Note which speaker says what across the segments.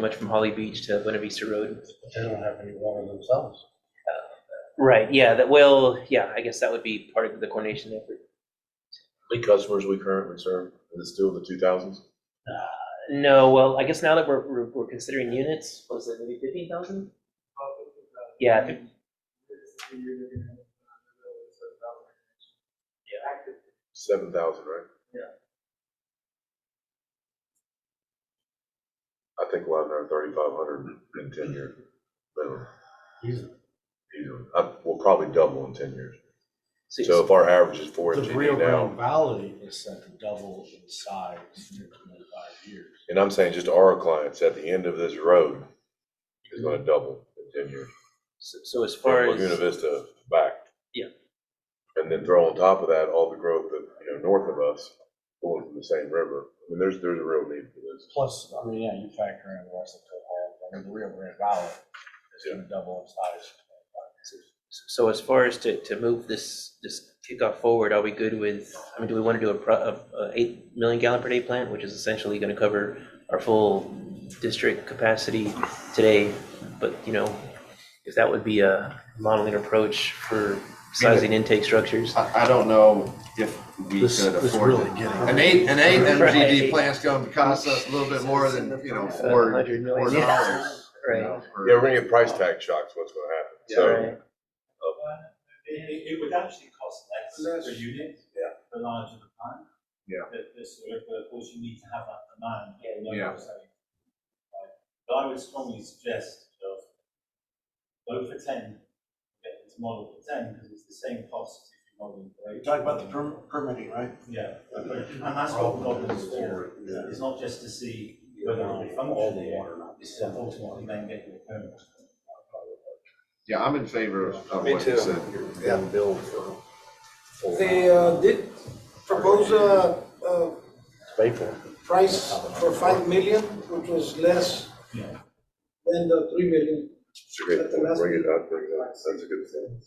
Speaker 1: much from Holly Beach to Buena Vista Road.
Speaker 2: They don't have any water themselves.
Speaker 1: Right, yeah, that, well, yeah, I guess that would be part of the coordination effort.
Speaker 3: How many customers we currently serve, and it's still in the two thousands?
Speaker 1: No, well, I guess now that we're, we're- we're considering units, what was it maybe fifteen thousand? Yeah, I think-
Speaker 3: Seven thousand, right? Yeah. I think we'll have another thirty-five hundred in ten years. minimum,
Speaker 2: Easily.
Speaker 3: easily. I- We'll probably double in ten years.
Speaker 1: so-
Speaker 3: So if our average is four
Speaker 2: The Rio
Speaker 3: MTD
Speaker 2: Grande
Speaker 3: now,
Speaker 2: Valley is set to double in size in twenty-five years.
Speaker 3: and I'm saying just our clients, at the end of this road is gonna double in ten years.
Speaker 1: so- So as
Speaker 3: From
Speaker 1: far
Speaker 3: Laguna
Speaker 1: as,
Speaker 3: Vista back.
Speaker 1: Yeah.
Speaker 3: And then throw on top of that all the growth that, you know, north of us, going from the same river. I mean, there's, there's a real need for this.
Speaker 2: Plus, I mean, yeah, you factor in West Oklahoma, I mean, the Rio Grande Valley is gonna double in size.
Speaker 1: so as far as to, to move this, this kickoff forward, are we good with, I mean, do we want to do a, pro- a a eight million gallon per day plant, which is essentially going to cover our full district capacity today? But, you know, if that would be a modeling approach for sizing intake structures.
Speaker 4: I, I don't know if we
Speaker 2: This,
Speaker 4: could
Speaker 2: this
Speaker 4: afford
Speaker 2: really
Speaker 4: it. An
Speaker 2: getting.
Speaker 4: eight, an eight
Speaker 1: Right.
Speaker 4: MGD plant's gonna cost us a little bit more than, you know,
Speaker 1: $100
Speaker 4: four,
Speaker 1: uh, million.
Speaker 4: four dollars. you
Speaker 1: Right.
Speaker 4: know, for-
Speaker 3: Yeah, we're gonna get price tag shocks, what's gonna happen,
Speaker 4: Yeah.
Speaker 3: so,
Speaker 1: Right.
Speaker 5: It, it, it would actually cost less per unit.
Speaker 3: Yeah.
Speaker 5: The larger the plant.
Speaker 4: Yeah.
Speaker 5: The, the sort of, but of course you need to have that demand. you know,
Speaker 4: Yeah.
Speaker 5: so, right. But I would strongly suggest of go for ten, get them to model for ten, because it's the same cost as if you're modeling for eight.
Speaker 2: permitting, right?
Speaker 5: Yeah, and that's what models is for. It's not just to see whether it functions, it's to ultimately then get your permit.
Speaker 4: Yeah, I'm in favor of of what you said.
Speaker 2: And build for.
Speaker 6: They uh, did propose a, a price for five million, which was less
Speaker 5: Yeah.
Speaker 6: than the three million.
Speaker 3: it's a great point, bring it up, bring it up, that's a good thing.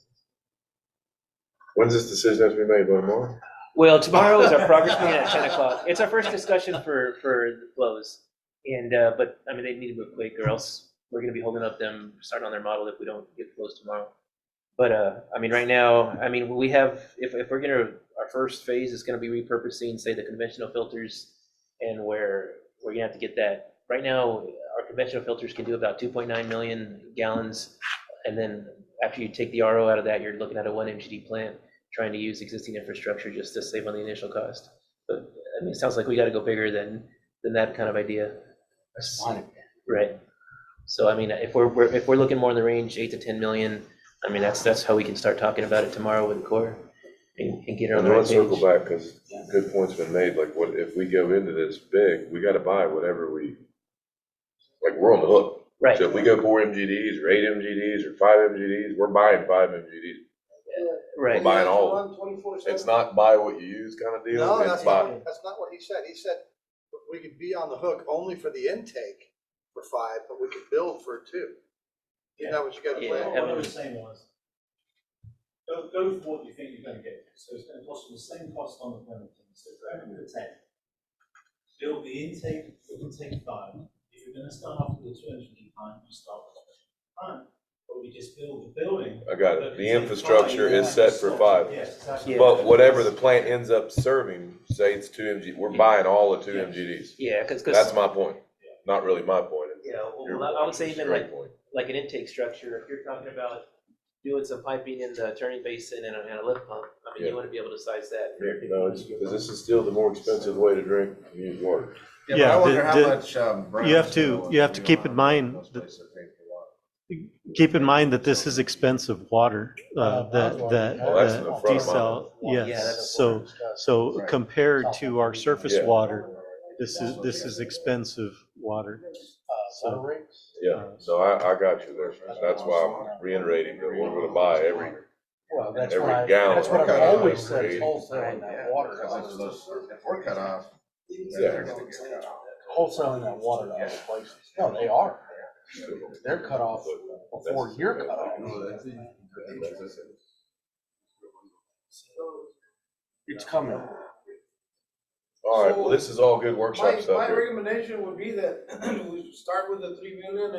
Speaker 3: When's this decision has to be made, by tomorrow?
Speaker 1: Well, tomorrow is our progress meeting at ten o'clock. It's our first discussion for, for the flows. And, uh, but, I mean, they need to move quick or else we're gonna be holding up them, starting on their model if we don't get flows tomorrow. But, uh, I mean, right now, I mean, we have, if, if we're gonna, our first phase is gonna be repurposing, say, the conventional filters. And where, we're gonna have to get that. Right now, our conventional filters can do about two point nine million gallons. And then after you take the RO out of that, you're looking at a one MGD plant trying to use existing infrastructure just to save on the initial cost. But, I mean, it sounds like we gotta go bigger than, than that kind of idea. Right. So, I mean, if we're, we're, if we're looking more in the range, eight to ten million, I mean, that's, that's how we can start talking about it tomorrow with the core and, and get it on
Speaker 3: And
Speaker 1: the right
Speaker 3: let's circle
Speaker 1: page.
Speaker 3: back, because good point's been made, like, what, if we go into this big, we gotta buy whatever we, like, we're on the hook.
Speaker 1: Right,
Speaker 3: So if we go four MGDs, or eight MGDs, or five MGDs, we're buying five MGDs.
Speaker 1: right.
Speaker 3: buying
Speaker 6: Yeah,
Speaker 3: all.
Speaker 6: run 24/7.
Speaker 3: It's not buy what you use kind of deal.
Speaker 7: No,
Speaker 3: it's
Speaker 7: that's
Speaker 3: buy-
Speaker 7: not, that's not what he said. He said we could be on the hook only for the intake for five, but we could build for two. Isn't that what you got to
Speaker 1: Yeah.
Speaker 7: plan?
Speaker 5: What what I was saying was, go, go for what you think you're gonna get, so it's gonna cost you the same cost on the permitting, so go for the ten. Build the intake, the intake five, if you're gonna start off with the two hundred and nine, you start with the five, but we just build the building.
Speaker 3: I got
Speaker 5: but
Speaker 3: it. The
Speaker 5: it's
Speaker 3: infrastructure
Speaker 5: five,
Speaker 3: is set for five.
Speaker 5: Yes, exactly.
Speaker 3: But whatever the plant ends up serving, say it's two MG, we're buying all the two MGDs.
Speaker 1: Yeah, cause, cause.
Speaker 3: That's my point. Not really my point. it's
Speaker 1: Yeah,
Speaker 3: your
Speaker 1: well, I would say even
Speaker 3: straight
Speaker 1: like,
Speaker 3: point.
Speaker 1: like an intake structure, if you're talking about doing some piping in the turning basin and a, and a lift pump, I mean,
Speaker 3: Yeah.
Speaker 1: you wanna be able to size that.
Speaker 3: No, it's, because this is still the more expensive way to drink and use water.
Speaker 4: Yeah, but
Speaker 8: Yeah,
Speaker 4: I
Speaker 8: the-
Speaker 4: wonder how
Speaker 8: the-
Speaker 4: much, um.
Speaker 8: you have
Speaker 4: Brown's
Speaker 8: to-
Speaker 4: gonna
Speaker 8: you have to
Speaker 4: do
Speaker 8: keep
Speaker 4: on
Speaker 8: in mind
Speaker 4: those
Speaker 8: that-
Speaker 4: places that pay for water.
Speaker 8: Keep in mind that this is expensive water, uh, that, that,
Speaker 3: Oh, that's in
Speaker 8: that
Speaker 3: the front of
Speaker 8: desal,
Speaker 2: mine.
Speaker 1: Yeah,
Speaker 8: yes.
Speaker 1: that's
Speaker 8: So, so
Speaker 4: Right.
Speaker 8: compared to our surface
Speaker 3: Yeah.
Speaker 8: water, this is, this is expensive water.
Speaker 2: Water rates?
Speaker 3: Yeah,
Speaker 8: uh,
Speaker 3: so I, I got you there. That's why I'm reiterating that we're gonna buy every,
Speaker 2: Well, that's
Speaker 3: Every
Speaker 2: what I,
Speaker 3: gallon
Speaker 2: that's what
Speaker 4: we're
Speaker 2: I've always said,
Speaker 3: cutting
Speaker 2: is
Speaker 3: out.
Speaker 2: wholesaling
Speaker 4: Yeah,
Speaker 2: that water.
Speaker 4: because
Speaker 2: out
Speaker 4: if
Speaker 2: of
Speaker 4: those-
Speaker 2: those-
Speaker 4: If we're cut off,
Speaker 3: Yeah.
Speaker 4: they're gonna get cut off.
Speaker 2: Wholesaling that water to other places. No, they are. They're cut off before you're cut off. It's coming.
Speaker 3: All right, well, this is all good workshop
Speaker 6: My,
Speaker 3: stuff
Speaker 6: my
Speaker 3: here.
Speaker 6: recommendation would be that we start with the three million